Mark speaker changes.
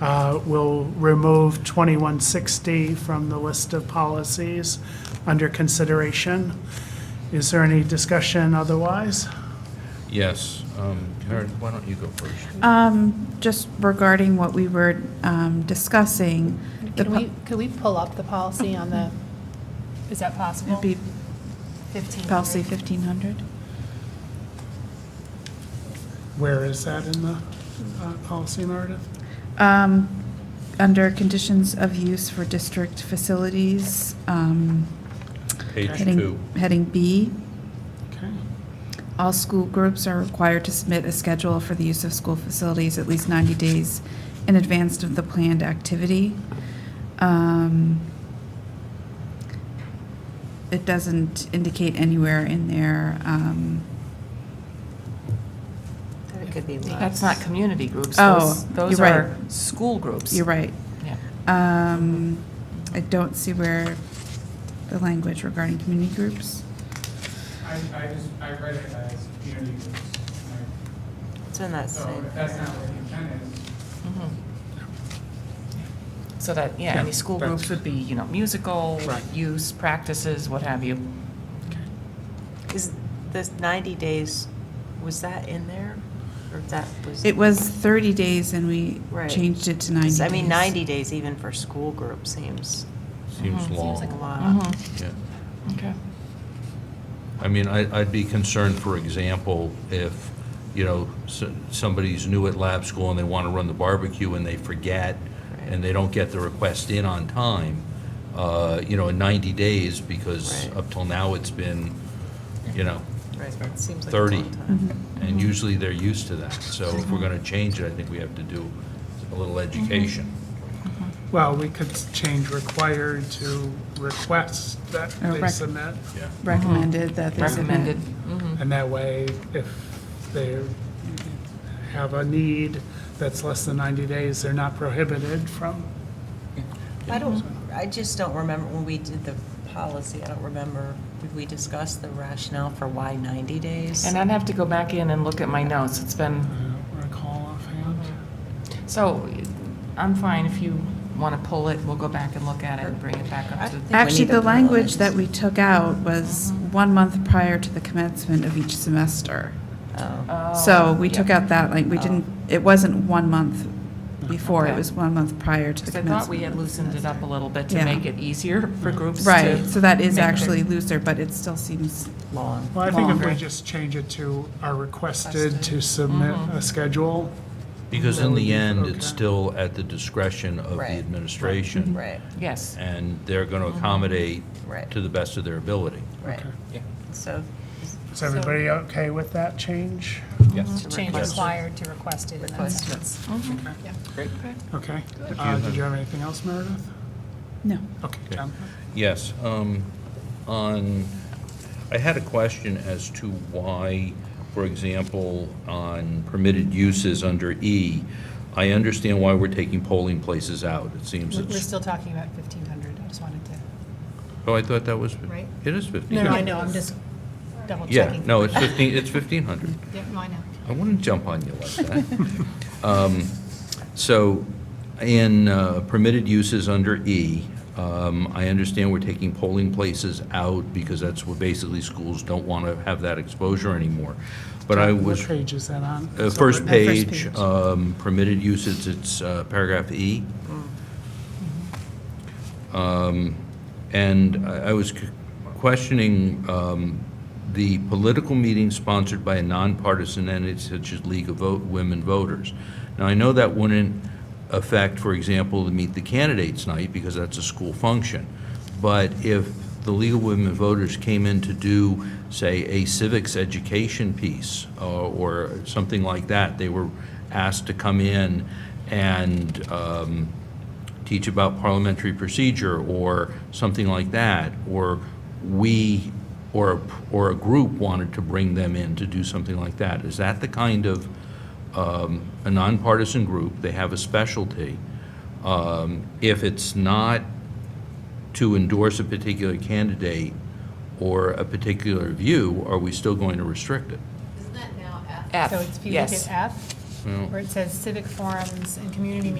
Speaker 1: Uh, We'll remove 2160 from the list of policies under consideration. Is there any discussion otherwise?
Speaker 2: Yes. um, Karen, why don't you go first?
Speaker 3: Uh,
Speaker 4: Just regarding what we were um, discussing, the
Speaker 5: Can we, could we pull up the policy on the, is that
Speaker 4: po-
Speaker 5: possible?
Speaker 4: it'd be
Speaker 5: 15.
Speaker 4: policy 1500.
Speaker 1: Where is that in the uh, policy narrative?
Speaker 4: Um, Under conditions of use for district facilities, um,
Speaker 2: Page
Speaker 4: heading-
Speaker 2: two.
Speaker 4: Heading B,
Speaker 1: Okay.
Speaker 4: all school groups are required to submit a schedule for the use of school facilities at least 90 days in advance of the planned activity. Um, It doesn't indicate anywhere in there, um,
Speaker 3: It could be less.
Speaker 6: That's not community groups.
Speaker 4: Oh,
Speaker 6: Those- Those
Speaker 4: you're
Speaker 6: are
Speaker 4: right.
Speaker 6: school groups.
Speaker 4: you're right,
Speaker 6: Yeah.
Speaker 4: Um, I don't see where the language regarding community groups.
Speaker 7: I, I just, I read it as community groups. and
Speaker 3: It's in
Speaker 7: I-
Speaker 3: that
Speaker 7: So
Speaker 3: same.
Speaker 7: if that's not what the intent is,
Speaker 6: Mhm. So that, yeah,
Speaker 1: Yeah,
Speaker 6: any school
Speaker 1: that's-
Speaker 6: groups would be, you know, musical,
Speaker 1: Right.
Speaker 6: use, practices, what have you.
Speaker 3: Is this 90 days, was that in there? Or that was?
Speaker 4: It was 30 days and we
Speaker 3: Right.
Speaker 4: changed it to 90 days.
Speaker 3: I mean, 90 days even for school group seems
Speaker 2: Seems
Speaker 3: Mm-hmm. like a
Speaker 2: long.
Speaker 3: lot.
Speaker 2: Yeah.
Speaker 6: Okay.
Speaker 2: I mean, I- I'd be concerned, for example, if, you know, s- somebody's new at lab school and they want to run the barbecue and they forget, and they don't get the request in on time, uh, you know, in 90 days, because
Speaker 3: Right.
Speaker 2: up till now, it's been, you know,
Speaker 4: Mm-hmm.
Speaker 3: Right, that seems like a
Speaker 2: 30.
Speaker 3: long time. Mm-hmm.
Speaker 2: and usually they're used to that. So if we're going to change it, I think we have to do a little
Speaker 3: Mm-hmm.
Speaker 2: education.
Speaker 1: Well, we could change required to request that
Speaker 4: Oh,
Speaker 1: they
Speaker 4: rec-
Speaker 1: submit,
Speaker 2: Yeah.
Speaker 4: Recommended that they submit.
Speaker 6: uh-huh. Recommended. Mhm.
Speaker 1: and that way, if they have a need that's less than 90 days, they're not prohibited from.
Speaker 4: Mm-hmm.
Speaker 3: I don't, I just don't remember when we did the policy, I don't remember, did we discuss the rationale for why 90 days?
Speaker 6: And I'd have to go back in and look at my notes. It's been,
Speaker 1: I don't recall offhand.
Speaker 6: so I'm fine if you want to pull it. We'll go back and look at it and bring it back up to.
Speaker 3: I- think we
Speaker 4: Actually,
Speaker 3: need to
Speaker 4: the
Speaker 3: put it on
Speaker 4: language
Speaker 3: this.
Speaker 4: that we took out was
Speaker 6: Uh-huh.
Speaker 4: one month prior to the commencement of each semester.
Speaker 3: Oh,
Speaker 4: So we took
Speaker 6: Yeah. Oh.
Speaker 4: out that, like, we didn't, it wasn't one month before, it
Speaker 6: Okay.
Speaker 4: was one month prior to the
Speaker 6: 'Cause I thought we
Speaker 4: commencement.
Speaker 6: had loosened it up a little bit
Speaker 4: Yeah.
Speaker 6: to make it easier for groups to.
Speaker 4: Right, so that is
Speaker 6: make their-
Speaker 4: actually looser, but it still seems,
Speaker 3: long.
Speaker 1: Well, I think if we
Speaker 6: Longer.
Speaker 1: just change it to are requested to submit a schedule,
Speaker 2: Because in the end,
Speaker 1: Okay.
Speaker 2: it's still at the discretion of the
Speaker 3: Right.
Speaker 2: administration.
Speaker 3: Right,
Speaker 6: Yes.
Speaker 2: And they're going to accommodate
Speaker 3: Right.
Speaker 2: to the best of their ability.
Speaker 3: right. So.
Speaker 1: is everybody okay with that change?
Speaker 2: Yes.
Speaker 3: to
Speaker 5: Change
Speaker 3: request-
Speaker 5: required to requested in that
Speaker 3: Requested.
Speaker 5: sentence.
Speaker 1: Okay. Uh, Did you have anything else, Meredith?
Speaker 4: no.
Speaker 1: Okay, John?
Speaker 2: Yes. um, On, I had a question as to why, for example, on permitted uses under E, I understand why we're taking polling places out. It seems
Speaker 5: We're we're
Speaker 2: it's,
Speaker 5: still talking about 1,500, I just wanted to,
Speaker 2: oh, I thought that was,
Speaker 5: Right.
Speaker 2: it is 15.
Speaker 5: no, no, I know, I'm just double
Speaker 2: Yeah,
Speaker 5: checking.
Speaker 2: no, it's 15, it's 1,500.
Speaker 5: Yeah, no, I know.
Speaker 2: I wouldn't jump on you like that. Um, So in uh, permitted uses under E, um, I understand we're taking polling places out because that's what basically schools don't want to have that exposure anymore. But I was,
Speaker 1: What page is that on?
Speaker 2: uh, first
Speaker 4: Uh, first
Speaker 2: page,
Speaker 4: page.
Speaker 2: um, permitted uses, it's uh, paragraph E. Um, And I I was c- questioning um, the political meeting sponsored by a nonpartisan entity such as League of Vote- Women Voters. Now, I know that wouldn't affect, for example, the Meet the Candidates Night, because that's a school function. But if the League of Women Voters came in to do, say, a civics education piece uh, or something like that, they were asked to come in and um, teach about parliamentary procedure or something like that, or we, or, a- or a group wanted to bring them in to do something like that. Is that the kind of, um, a nonpartisan group, they have a specialty. Um, If it's not to endorse a particular candidate or a particular view, are we still going to restrict it?
Speaker 8: Isn't that now F?
Speaker 6: F,
Speaker 5: So it's- if you look
Speaker 6: yes.
Speaker 5: at F, where it says civic forums and community